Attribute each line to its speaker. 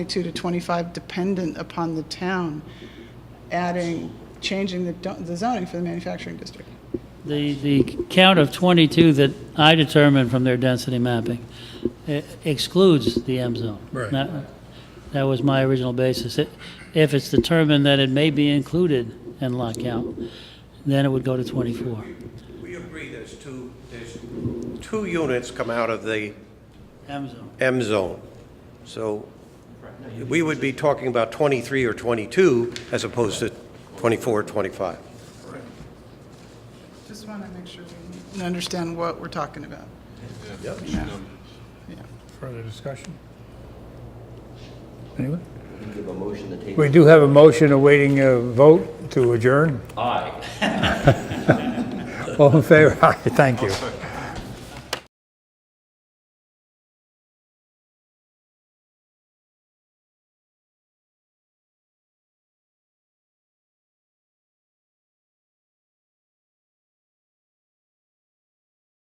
Speaker 1: 22 to 25 dependent upon the town adding, changing the do- the zoning for the manufacturing district.
Speaker 2: The, the count of 22 that I determined from their density mapping eh, excludes the M zone.
Speaker 3: Right.
Speaker 2: That- That was my original basis. It- If it's determined that it may be included in lot count, then it would go to 24.
Speaker 4: We agree there's two, there's two units come out of the
Speaker 2: M zone.
Speaker 4: M zone. So we would be talking about 23 or 22 as opposed to 24 or 25.
Speaker 1: Just want to make sure we understand what we're talking about. Yeah. Yeah.
Speaker 3: Further discussion? Anyone?
Speaker 5: Give a motion to table.
Speaker 3: We do have a motion awaiting a vote to adjourn.
Speaker 5: Aye.
Speaker 3: All in favor? Aye, thank you.